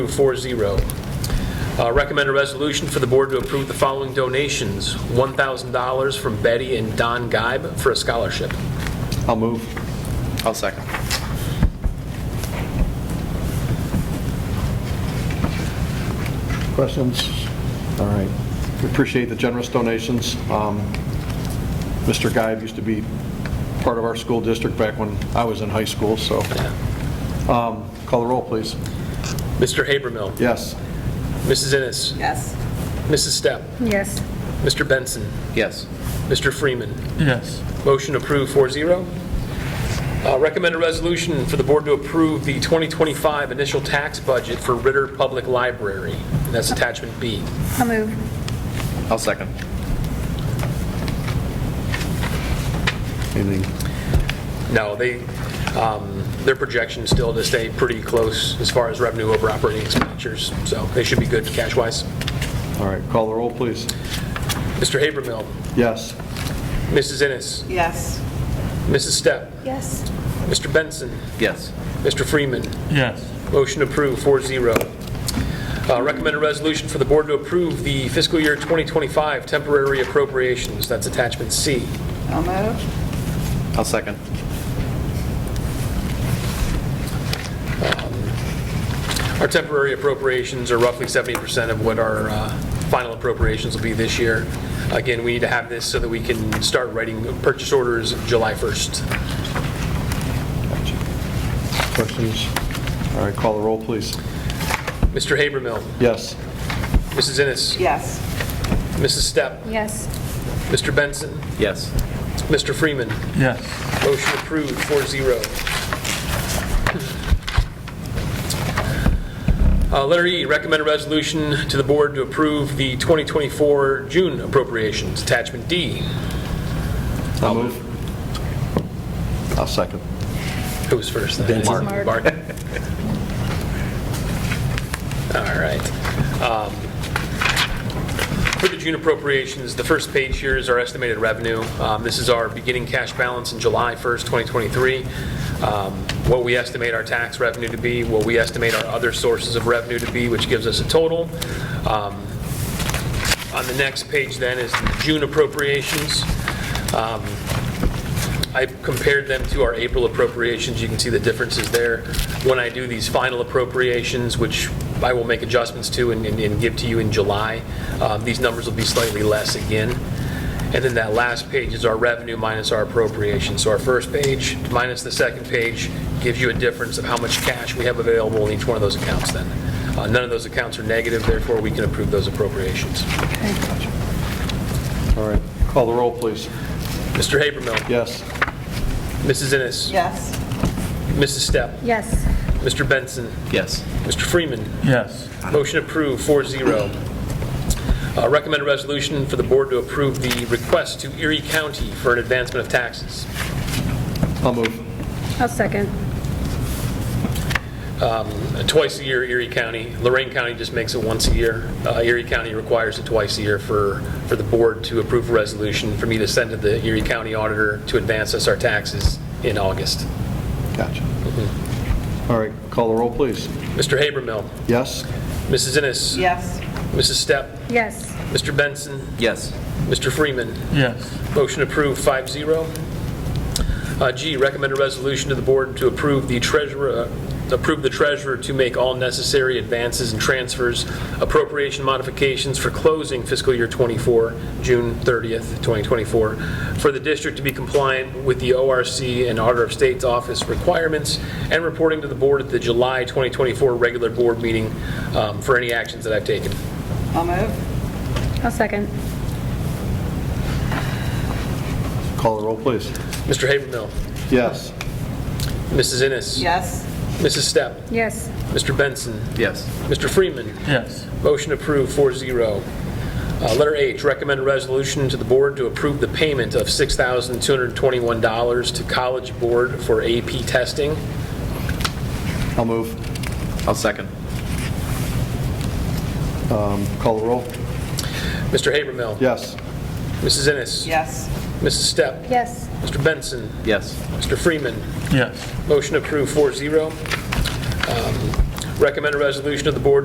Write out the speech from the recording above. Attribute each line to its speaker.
Speaker 1: 4-0. Uh, Recommend a resolution for the board to approve the following donations. $1,000 from Betty and Don Geib for a scholarship.
Speaker 2: I'll move. I'll second.
Speaker 3: Questions? All right. We appreciate the generous donations. Um, Mr. Guide used to be part of our school district back when I was in high school, so. Um, Call the roll, please.
Speaker 1: Mr. Habermill.
Speaker 3: Yes.
Speaker 1: Mrs. Innes.
Speaker 4: Yes.
Speaker 1: Mrs. Stepp.
Speaker 5: Yes.
Speaker 1: Mr. Benson.
Speaker 2: Yes.
Speaker 1: Mr. Freeman.
Speaker 6: yes,
Speaker 1: Motion approved 4-0. Uh, Recommend a resolution for the board to approve the 2025 initial tax budget for Ritter Public Library. And that's attachment B.
Speaker 5: I'll move.
Speaker 2: I'll second.
Speaker 3: Anything?
Speaker 1: No, they, um, their projection's still to stay pretty close as far as revenue over operating expenditures, so they should be good cash-wise.
Speaker 3: All right, call the roll, please.
Speaker 1: Mr. Habermill,
Speaker 3: Yes.
Speaker 1: Mrs. Innes,
Speaker 4: Yes.
Speaker 1: Mrs. Stepp,
Speaker 5: Yes.
Speaker 1: Mr. Benson,
Speaker 2: Yes.
Speaker 1: Mr. Freeman.
Speaker 6: yes,
Speaker 1: Motion approved, 4-0. Uh, Recommend a resolution for the board to approve the fiscal year 2025 temporary appropriations. That's attachment C.
Speaker 4: I'll move.
Speaker 2: I'll second.
Speaker 1: Our temporary appropriations are roughly 70% of what our uh, final appropriations will be this year. Again, we need to have this so that we can start writing purchase orders July 1st.
Speaker 3: Questions? All right, call the roll, please.
Speaker 1: Mr. Habermill,
Speaker 3: Yes.
Speaker 1: Mrs. Innes,
Speaker 4: Yes.
Speaker 1: Mrs. Stepp,
Speaker 5: Yes.
Speaker 1: Mr. Benson,
Speaker 2: Yes.
Speaker 1: Mr. Freeman.
Speaker 6: yes,
Speaker 1: Motion approved, 4-0. Uh, Letter E, recommend a resolution to the board to approve the 2024 June appropriations, attachment D.
Speaker 3: I'll move. I'll second.
Speaker 1: Who was first? then?
Speaker 5: Mark.
Speaker 1: Mark. All right. Um, For the June appropriations, the first page here is our estimated revenue. Um, This is our beginning cash balance in July 1st, 2023. Um, What we estimate our tax revenue to be, what we estimate our other sources of revenue to be, which gives us a total. Um, On the next page then is the June appropriations. Um, I compared them to our April appropriations, you can see the differences there. When I do these final appropriations, which I will make adjustments to and- and and give to you in July, um, these numbers will be slightly less again. And then that last page is our revenue minus our appropriation. So our first page minus the second page gives you a difference of how much cash we have available in each one of those accounts then. Uh, None of those accounts are negative, therefore we can approve those appropriations.
Speaker 3: All right, call the roll, please.
Speaker 1: Mr. Habermill.
Speaker 3: Yes.
Speaker 1: Mrs. Innes.
Speaker 4: Yes.
Speaker 1: Mrs. Stepp.
Speaker 5: Yes.
Speaker 1: Mr. Benson.
Speaker 2: Yes.
Speaker 1: Mr. Freeman.
Speaker 6: yes,
Speaker 1: Motion approved, 4-0. Uh, Recommend a resolution for the board to approve the request to Erie County for an advancement of taxes.
Speaker 3: I'll move.
Speaker 5: I'll second.
Speaker 1: Uh, Twice a year, Erie County, Lorraine County just makes it once a year. Uh, Erie County requires it twice a year for, for the board to approve a resolution for me to send to the Erie County auditor to advance us our taxes in August.
Speaker 3: Gotcha. All right, call the roll, please.
Speaker 1: Mr. Habermill,
Speaker 3: Yes?
Speaker 1: Mrs. Innes.
Speaker 4: Yes.
Speaker 1: Mrs. Stepp,
Speaker 5: Yes.
Speaker 1: Mr. Benson,
Speaker 2: Yes.
Speaker 1: Mr. Freeman.
Speaker 6: yes,
Speaker 1: Motion approved, 5-0. Uh, G, recommend a resolution to the board to approve the treasurer, uh, approve the treasurer to make all necessary advances and transfers, appropriation modifications for closing fiscal year 24, June 30th, 2024, for the district to be compliant with the ORC and Auditor of State's Office requirements, and reporting to the board at the July 2024 regular board meeting um, for any actions that I've taken.
Speaker 4: I'll move.
Speaker 5: I'll second.
Speaker 3: Call the roll, please.
Speaker 1: Mr. Habermill,
Speaker 3: Yes.
Speaker 1: Mrs. Innes.
Speaker 4: Yes.
Speaker 1: Mrs. Stepp,
Speaker 5: Yes.
Speaker 1: Mr. Benson,
Speaker 2: Yes.
Speaker 1: Mr. Freeman.
Speaker 6: yes,
Speaker 1: Motion approved, 4-0. Uh, Letter H, recommend a resolution to the board to approve the payment of $6,221 to College Board for AP testing.
Speaker 3: I'll move.
Speaker 2: I'll second.
Speaker 3: Call the roll.
Speaker 1: Mr. Habermill.
Speaker 3: Yes.
Speaker 1: Mrs. Innes.
Speaker 4: Yes.
Speaker 1: Mrs. Stepp.
Speaker 5: Yes.
Speaker 1: Mr. Benson.
Speaker 2: Yes.
Speaker 1: Mr. Freeman.
Speaker 6: yes,
Speaker 1: Motion approved, 4-0. Um, Recommend a resolution of the Board